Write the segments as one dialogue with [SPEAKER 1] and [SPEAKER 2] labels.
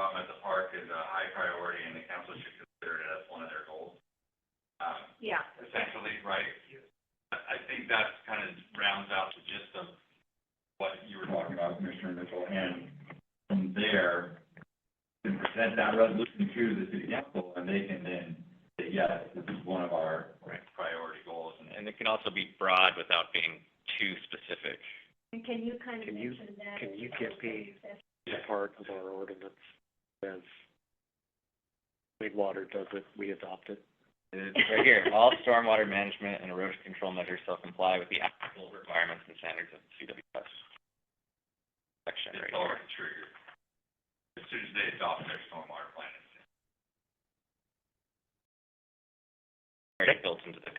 [SPEAKER 1] Um, that resolution to the city council, and they can then say, yes, this is one of our priority goals, and
[SPEAKER 2] And it can also be broad without being too specific.
[SPEAKER 3] And can you kind of
[SPEAKER 4] Can you-
[SPEAKER 3] mention that?
[SPEAKER 4] can
[SPEAKER 3] in
[SPEAKER 4] you
[SPEAKER 3] the
[SPEAKER 4] get
[SPEAKER 3] executive session?
[SPEAKER 4] a part of our ordinance says, Clean Water does it, we adopt it.
[SPEAKER 2] It's right here, all stormwater management and erosion control measures shall comply with the applicable requirements and standards of CWS. Section
[SPEAKER 1] it's
[SPEAKER 2] right here.
[SPEAKER 1] already triggered. As soon as they adopt their stormwater plan, it's
[SPEAKER 2] already built into the,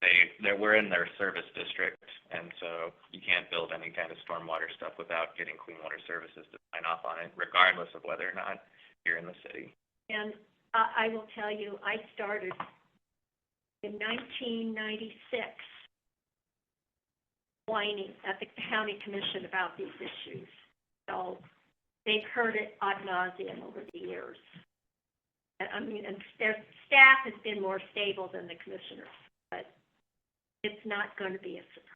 [SPEAKER 2] they, they're, we're in their service district, and so you can't build any kind of stormwater stuff without getting clean water services to sign off on it, regardless of whether or not you're in the city.
[SPEAKER 3] And I, I will tell you, I started in nineteen ninety-six whining at the county commission about these issues. So they've heard it ad nauseum over the years. And I mean, and their staff has been more stable than the commissioners, but it's not going to be a surprise.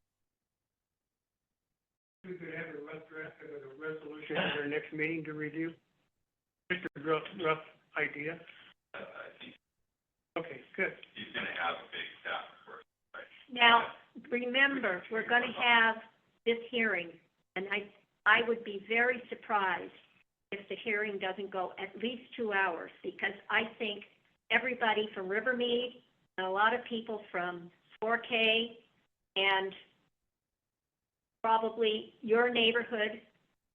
[SPEAKER 5] We could have a rough draft of a resolution at our next meeting to review? Just a rough, rough idea?
[SPEAKER 1] uh, uh, he's,
[SPEAKER 5] Okay, good.
[SPEAKER 1] he's gonna have a big staff report.
[SPEAKER 3] Now, remember, we're going to have this hearing, and I, I would be very surprised if the hearing doesn't go at least two hours, because I think everybody from Rivermead, and a lot of people from 4K, and probably your neighborhood,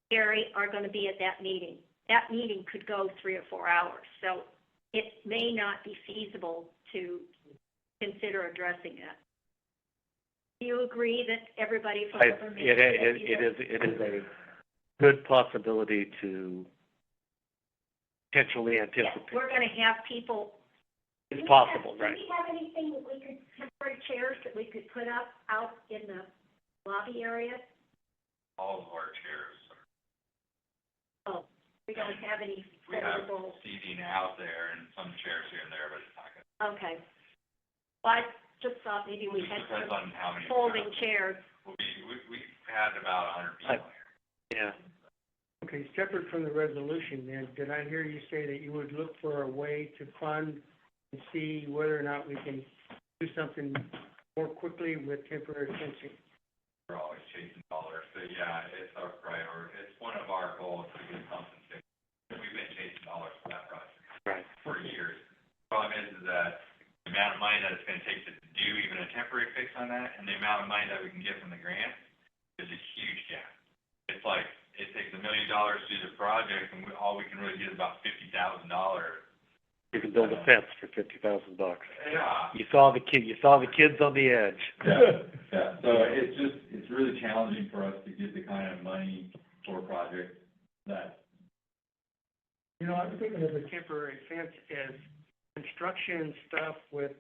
[SPEAKER 3] Gary, are going to be at that meeting. That meeting could go three or four hours, so it may not be feasible to consider addressing it. Do you agree that everybody from
[SPEAKER 4] I,
[SPEAKER 3] Rivermead?
[SPEAKER 4] it,
[SPEAKER 3] should
[SPEAKER 4] it,
[SPEAKER 3] be
[SPEAKER 4] it
[SPEAKER 3] there?
[SPEAKER 4] is, it is a good possibility to potentially
[SPEAKER 3] Yeah,
[SPEAKER 4] anticipate,
[SPEAKER 3] We're gonna have people.
[SPEAKER 4] it's possible, right?
[SPEAKER 3] Do we have anything that we could, temporary chairs that we could put up out in the lobby area?
[SPEAKER 1] All of our chairs are
[SPEAKER 3] Oh, we don't have any
[SPEAKER 1] We have
[SPEAKER 3] portable,
[SPEAKER 1] seating out there and some chairs here and there, but it's not gonna,
[SPEAKER 3] okay. Well, I just thought maybe we
[SPEAKER 1] it
[SPEAKER 3] had
[SPEAKER 1] depends
[SPEAKER 3] some
[SPEAKER 1] on how many.
[SPEAKER 3] folding chairs.
[SPEAKER 1] We, we, we had about a hundred people here.
[SPEAKER 4] Yeah,
[SPEAKER 5] Okay, separate from the resolution then, did I hear you say that you would look for a way to fund and see whether or not we can do something more quickly with temporary fencing?
[SPEAKER 1] We're always chasing dollars, so yeah, it's our priority, it's one of our goals to get something fixed. We've been chasing dollars for that project
[SPEAKER 4] right.
[SPEAKER 1] for years. Problem is, is that the amount of money that it's gonna take to do even a temporary fix on that, and the amount of money that we can get from the grant, is a huge gap. It's like, it takes a million dollars to do the project, and we, all we can really get is about fifty thousand dollars.
[SPEAKER 4] You can build a fence for fifty thousand bucks.
[SPEAKER 1] Yeah.
[SPEAKER 4] You saw the kid, you saw the kids on the edge.
[SPEAKER 1] Yeah, yeah, so it's just, it's really challenging for us to get the kind of money for projects that,
[SPEAKER 5] You know, I'm thinking of the temporary fence as construction stuff with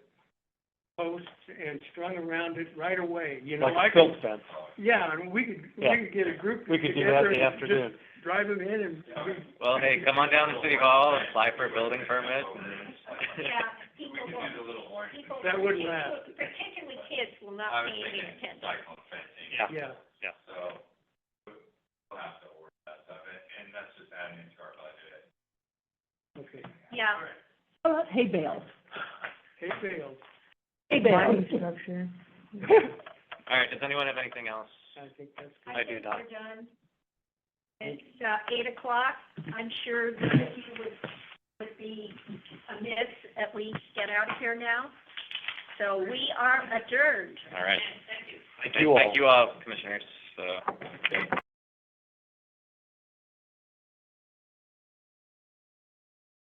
[SPEAKER 5] posts and strung around it right away, you know?
[SPEAKER 4] Like a
[SPEAKER 5] I could-
[SPEAKER 4] silk fence.
[SPEAKER 1] uh,
[SPEAKER 5] Yeah, I mean, we could,
[SPEAKER 4] Yeah.
[SPEAKER 5] we could get a group
[SPEAKER 4] We could do that
[SPEAKER 5] together
[SPEAKER 4] in the
[SPEAKER 5] and just
[SPEAKER 4] afternoon.
[SPEAKER 5] drive them in and
[SPEAKER 2] Well, hey, come on down to City Hall, apply for a building permit, and
[SPEAKER 3] Yeah, people will,
[SPEAKER 1] the little orange.
[SPEAKER 3] people.
[SPEAKER 5] That wouldn't last.
[SPEAKER 3] Particularly kids will
[SPEAKER 1] I
[SPEAKER 3] not
[SPEAKER 1] was
[SPEAKER 3] pay any
[SPEAKER 1] thinking
[SPEAKER 3] attention.
[SPEAKER 1] cyclone fencing.
[SPEAKER 5] Yeah,
[SPEAKER 1] So, we'll have to order that stuff, and, and that's just adding into our budget.
[SPEAKER 5] okay.
[SPEAKER 3] Yeah,
[SPEAKER 5] Hay bales,
[SPEAKER 2] All right, does anyone have anything else?
[SPEAKER 5] I think that's good.
[SPEAKER 3] I
[SPEAKER 4] I do
[SPEAKER 3] think
[SPEAKER 4] not.
[SPEAKER 3] we're done. It's, uh, eight o'clock. I'm sure that you would, would be amiss that we get out of here now. So we are adjourned.
[SPEAKER 2] All right.
[SPEAKER 4] Thank you all.
[SPEAKER 2] Thank you all, Uh, Commissioner.